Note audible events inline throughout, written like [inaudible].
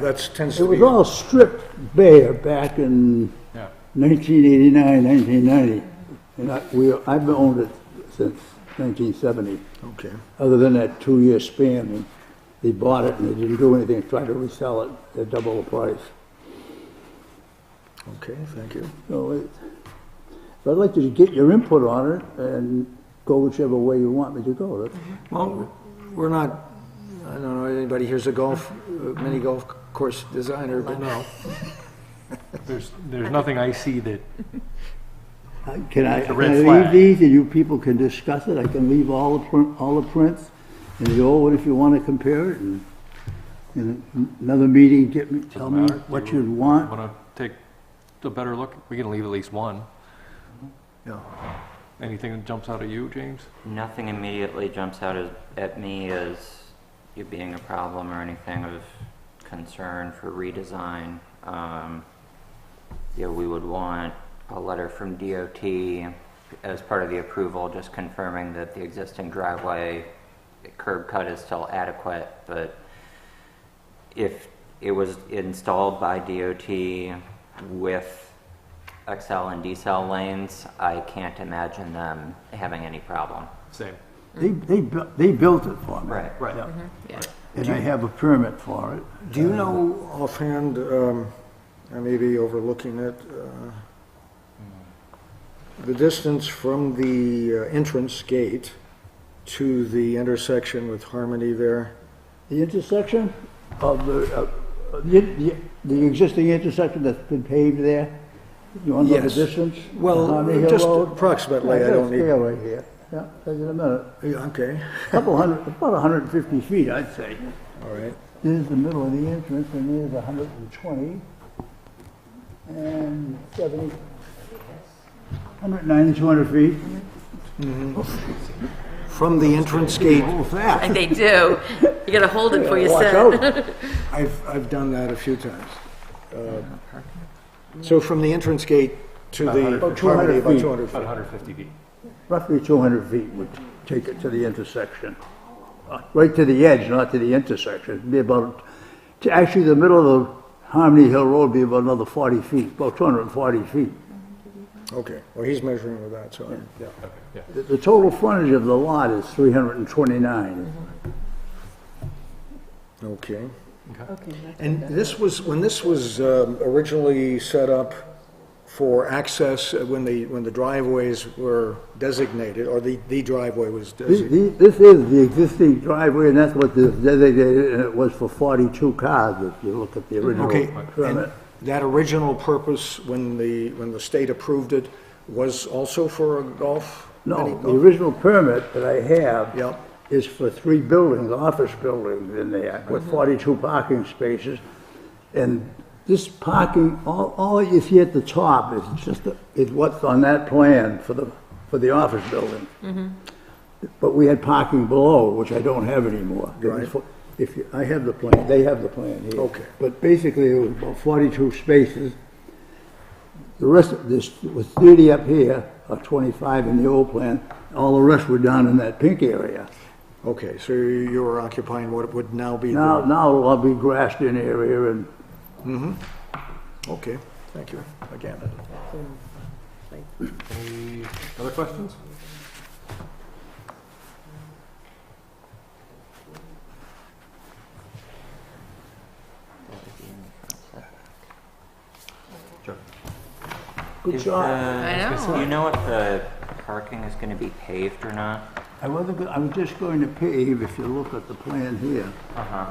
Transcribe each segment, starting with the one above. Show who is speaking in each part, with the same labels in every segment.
Speaker 1: That's tends
Speaker 2: It
Speaker 1: to be.
Speaker 2: was all stripped bare back in
Speaker 1: Yeah.
Speaker 2: 1989, 1990. And I, we, I've owned it since 1970,
Speaker 1: Okay.
Speaker 2: other than that two-year span when they bought it and they didn't do anything, tried to resell it at double the price.
Speaker 1: Okay, thank you.
Speaker 2: So it, but I'd like to get your input on it and go whichever way you want me to go. That's-
Speaker 1: Well, we're not, I don't know, anybody here's a golf, uh, mini golf course designer, but no.
Speaker 3: [laughs] There's, there's nothing I see that,
Speaker 2: Uh, Can I,
Speaker 3: It's a
Speaker 2: can
Speaker 3: red
Speaker 2: I leave
Speaker 3: flag.
Speaker 2: these and you people can discuss it? I can leave all the print, all the prints and the old one if you want to compare it and in another meeting, get me, tell me
Speaker 3: matter.
Speaker 2: what
Speaker 3: Do
Speaker 2: you'd want.
Speaker 3: want to take a better look. We can leave at least one.
Speaker 1: Yeah.
Speaker 3: Anything that jumps out at you, James?
Speaker 4: Nothing immediately jumps out as, at me as you being a problem or anything of concern for redesign. Um, yeah, we would want a letter from DOT as part of the approval, just confirming that the existing driveway curb cut is still adequate, but if it was installed by DOT with XL and decel lanes, I can't imagine them having any problem.
Speaker 3: Same.
Speaker 2: They, they, bu- they built it for me.
Speaker 4: Right.
Speaker 3: Right.
Speaker 2: And I have a permit for it.
Speaker 1: Do you know offhand, um, I may be overlooking it, uh, the distance from the uh, entrance gate to the intersection with Harmony there?
Speaker 2: The intersection of the, uh, the, the, the existing intersection that's been paved there, you want to know the
Speaker 1: Yes.
Speaker 2: distance?
Speaker 1: Well,
Speaker 2: Honey Hill
Speaker 1: just
Speaker 2: Road?
Speaker 1: approximately, I
Speaker 2: got a
Speaker 1: don't need-
Speaker 2: scale right here, yeah, take it in a minute.
Speaker 1: Yeah, Okay,
Speaker 2: Couple hundred, about hundred and fifty feet, I'd say.
Speaker 1: all right.
Speaker 2: There's the middle of the entrance, and there's hundred and twenty, and seventy, hundred and ninety, two hundred feet.
Speaker 1: From the entrance gate,
Speaker 2: that?
Speaker 5: They do. You gotta hold it for
Speaker 2: Watch
Speaker 5: yourself.
Speaker 2: out.
Speaker 1: I've, I've done that a few times. Uh, So from the entrance gate to the
Speaker 2: About 200
Speaker 1: Harmony, about
Speaker 2: feet.
Speaker 1: 200
Speaker 3: About
Speaker 1: feet.
Speaker 3: 150 feet.
Speaker 2: Roughly two hundred feet would take it to the intersection. Uh, Right to the edge, not to the intersection, It'd be about, to actually, the middle of Harmony Hill Road would be about another forty feet, about two hundred and forty feet.
Speaker 1: Okay, well, he's measuring with that, so, I'm- yeah.
Speaker 2: The- The total frontage of the lot is three hundred and twenty-nine.
Speaker 1: Okay. And this was, when this was um, originally set up for access, uh, when the, when the driveways were designated, or the, the driveway was
Speaker 2: This
Speaker 1: designated,
Speaker 2: the- this is the existing driveway, and that's what the designated, and it was for 42 cars, if you look at the original
Speaker 1: okay,
Speaker 2: permit.
Speaker 1: and that original purpose, when the, when the state approved it, was also for a golf? mini
Speaker 2: No,
Speaker 1: golf?
Speaker 2: the original permit that I have
Speaker 1: Yep.
Speaker 2: is for three buildings, office buildings in there,
Speaker 1: Mm-hmm.
Speaker 2: with 42 parking spaces. And this parking, all, all you see at the top is just, the- is what's on that plan for the, for the office building. But we had parking below, which I don't have anymore. It was
Speaker 1: Right.
Speaker 2: fo- If, you- I have the plan, they have the plan here.
Speaker 1: Okay.
Speaker 2: But basically, it was about 42 spaces. The rest of this was 30 up here, or 25 in the old plan. All the rest were down in that pink area.
Speaker 1: Okay, so you were occupying what would now be
Speaker 2: Now,
Speaker 1: the,
Speaker 2: now it'll all be grassed in area and
Speaker 1: okay, thank you, again.
Speaker 3: Any other questions?
Speaker 2: good
Speaker 4: Is
Speaker 2: shot.
Speaker 4: the-
Speaker 5: I know.
Speaker 4: Do you know if the parking is gonna be paved or not?
Speaker 2: uh, I wasn't, go- I was just going to pave, if you look at the plan here,
Speaker 4: Uh-huh.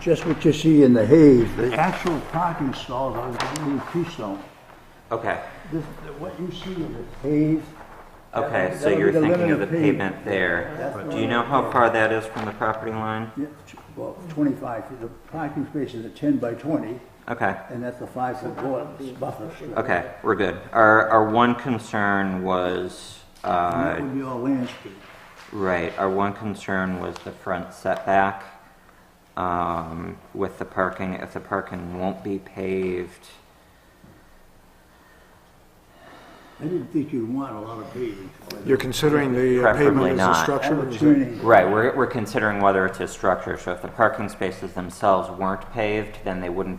Speaker 2: just what you see in the haze, the actual parking stalls are going to be pre-sown.
Speaker 4: Okay,
Speaker 2: This, what you see in the haze.
Speaker 4: okay,
Speaker 2: that-
Speaker 4: so
Speaker 2: that'll be
Speaker 4: you're
Speaker 2: the
Speaker 4: thinking
Speaker 2: limit
Speaker 4: of the pavement there. Do you know how far that is from the property line?
Speaker 2: Yeah, t- Well, 25, feet. the parking spaces are 10 by 20,
Speaker 4: Okay.
Speaker 2: and that's a five-foot border- buffer strip.
Speaker 4: Okay, we're good. Our, our one concern was,
Speaker 2: And
Speaker 4: uh,
Speaker 2: that would be all landscape.
Speaker 4: Right, our one concern was the front setback um, with the parking. If the parking won't be paved,
Speaker 2: I didn't think you'd want a lot of paving.
Speaker 1: You're considering the uh,
Speaker 4: Preferably
Speaker 1: pavement as a
Speaker 4: not.
Speaker 1: structure? Is that-
Speaker 2: Turning.
Speaker 4: Right, we're, we're considering whether it's a structure, so if the parking spaces themselves weren't paved, then they wouldn't